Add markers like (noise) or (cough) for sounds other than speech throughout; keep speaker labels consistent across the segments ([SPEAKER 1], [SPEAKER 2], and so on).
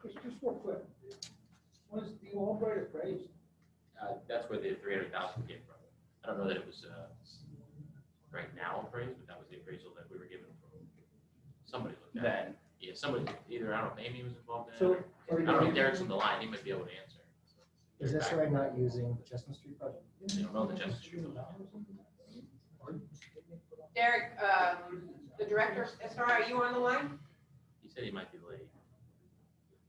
[SPEAKER 1] Chris, just real quick, was the Albright appraised?
[SPEAKER 2] Uh, that's where the three hundred thousand came from. I don't know that it was, uh, right now appraised, but that was the appraisal that we were given from somebody looked at. it.
[SPEAKER 3] Then,
[SPEAKER 2] Yeah, somebody, either, I don't know, if Amy was involved in
[SPEAKER 1] So-
[SPEAKER 2] it, or, I don't think Derek's on the line, he might be able to answer.
[SPEAKER 4] Is this
[SPEAKER 2] Back-
[SPEAKER 4] right not using the Chestnut Street project?
[SPEAKER 2] They don't know the Justice Street.
[SPEAKER 5] Derek, um, the director, SR, are you on the line?
[SPEAKER 2] He said he might be late.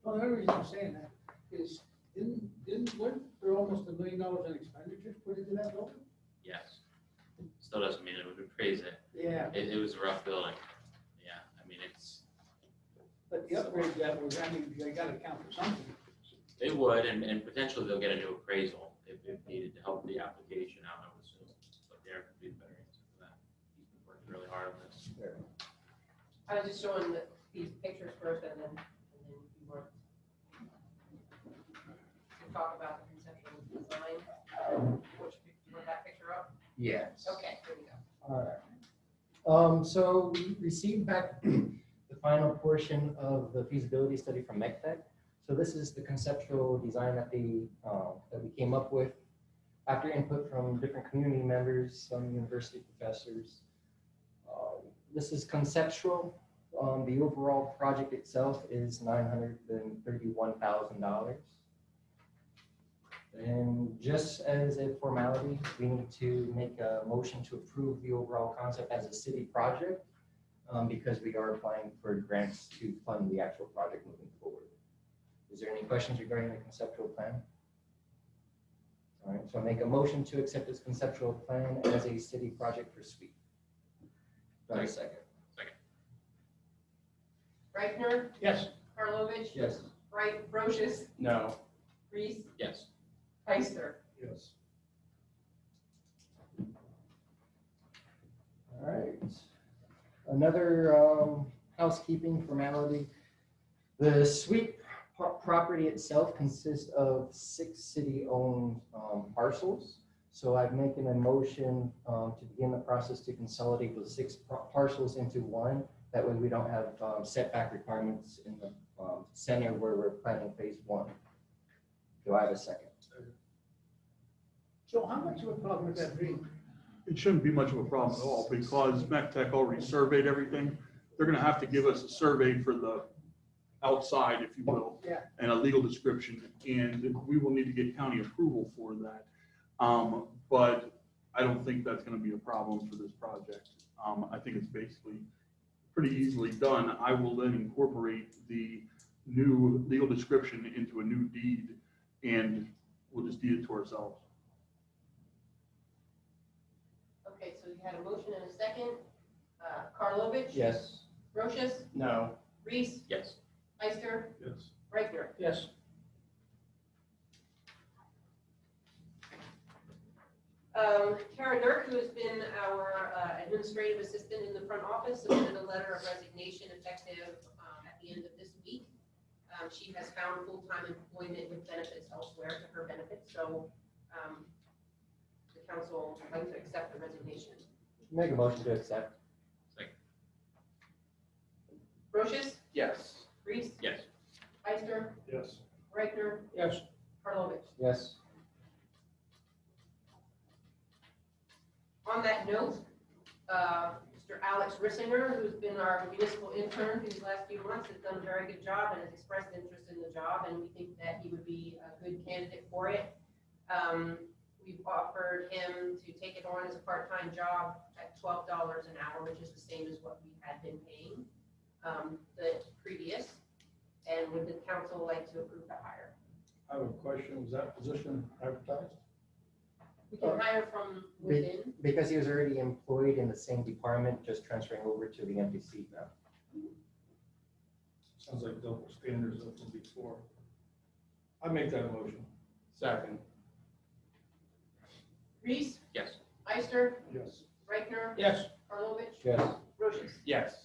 [SPEAKER 1] Well, the only reason I'm saying that is, didn't, didn't, weren't there almost a million dollars in expenditures put into that building?
[SPEAKER 2] Yes. Still doesn't mean it would appraise it.
[SPEAKER 1] Yeah.
[SPEAKER 2] It, it was a rough building. Yeah, I mean, it's,
[SPEAKER 1] But the upgrade that was, I mean, they gotta account for something.
[SPEAKER 2] it would, and, and potentially they'll get a new appraisal if, if needed to help the application out, I would assume. But Derek would be the better answer for that. He's been working really hard on this.
[SPEAKER 5] I was just showing the, these pictures first and then, and then you were. to Talk about the conceptual design, which, you want that picture up?
[SPEAKER 3] yes.
[SPEAKER 5] Okay, here we go.
[SPEAKER 4] Alright. Um, so we received back (clears throat) the final portion of the feasibility study from MECTEC. So this is the conceptual design that the, um, that we came up with after input from different community members, some university professors. Um, This is conceptual. Um, the overall project itself is nine hundred and thirty-one thousand dollars. And just as a formality, we need to make a motion to approve the overall concept as a city project um, because we are applying for grants to fund the actual project moving forward. Is there any questions regarding the conceptual plan? All right, so make a motion to accept this conceptual plan as a city project for SWEET. Do I have a second?
[SPEAKER 5] Reichner,
[SPEAKER 1] Yes.
[SPEAKER 5] Karlovic,
[SPEAKER 4] Yes.
[SPEAKER 5] Wright, Brochus,
[SPEAKER 3] No,
[SPEAKER 5] Reese,
[SPEAKER 2] Yes.
[SPEAKER 5] Heister.
[SPEAKER 1] Yes.
[SPEAKER 4] All right. Another um, housekeeping formality. The suite pro- property itself consists of six city-owned um, parcels. So I've making a motion um, to begin the process to consolidate those six par- parcels into one. That way we don't have um, setback requirements in the um, center where we're planning phase one. Do I have a second?
[SPEAKER 1] So how much of a problem would that be?
[SPEAKER 6] It shouldn't be much of a problem at all because MECTEC already surveyed everything. They're gonna have to give us a survey for the outside, if you will.
[SPEAKER 1] Yeah.
[SPEAKER 6] And a legal description, and we will need to get county approval for that. Um, but I don't think that's gonna be a problem for this project. Um, I think it's basically pretty easily done. I will then incorporate the new legal description into a new deed and we'll just deed it to ourselves.
[SPEAKER 5] Okay, so you had a motion and a second. Uh, Karlovic.
[SPEAKER 4] Yes.
[SPEAKER 5] Brochus,
[SPEAKER 3] no.
[SPEAKER 5] Reese,
[SPEAKER 2] Yes.
[SPEAKER 5] Heister,
[SPEAKER 6] Yes.
[SPEAKER 5] Reichner.
[SPEAKER 1] Yes.
[SPEAKER 5] Um, Karen Dirk, who has been our uh, administrative assistant in the front office, submitted a letter of resignation effective um, at the end of this week. Um, She has found full-time employment with benefits elsewhere to her benefit, so um, the council would like to accept the resignation.
[SPEAKER 4] Make a motion to accept.
[SPEAKER 5] Brochus,
[SPEAKER 3] Yes.
[SPEAKER 5] Reese,
[SPEAKER 2] Yes.
[SPEAKER 5] Ister,
[SPEAKER 6] Yes.
[SPEAKER 5] Reichner,
[SPEAKER 1] Yes.
[SPEAKER 5] Karlovic.
[SPEAKER 4] Yes.
[SPEAKER 5] On that note, uh, Mr. Alex Rissinger, who's been our municipal intern these last few months, has done a very good job and has expressed interest in the job, and we think that he would be a good candidate for it. Um, We've offered him to take it on as a part-time job at twelve dollars an hour, which is the same as what we had been paying um, the previous. And would the council like to approve the hire?
[SPEAKER 7] I have a question, was that position advertised?
[SPEAKER 5] We can hire from within.
[SPEAKER 4] Because he was already employed in the same department, just transferring over to the empty seat now.
[SPEAKER 7] Sounds like double standards up from before. I make that motion.
[SPEAKER 3] Second.
[SPEAKER 5] Reese,
[SPEAKER 2] Yes.
[SPEAKER 5] Ister,
[SPEAKER 7] Yes.
[SPEAKER 5] Reichner,
[SPEAKER 1] Yes.
[SPEAKER 5] Karlovic,
[SPEAKER 4] Yes.
[SPEAKER 5] Brochus.
[SPEAKER 3] Yes.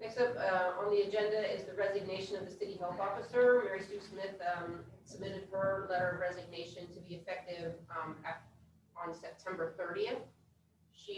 [SPEAKER 5] Next up uh, on the agenda is the resignation of the city health officer. Mary Sue Smith um, submitted her letter of resignation to be effective um, af- on September 30th.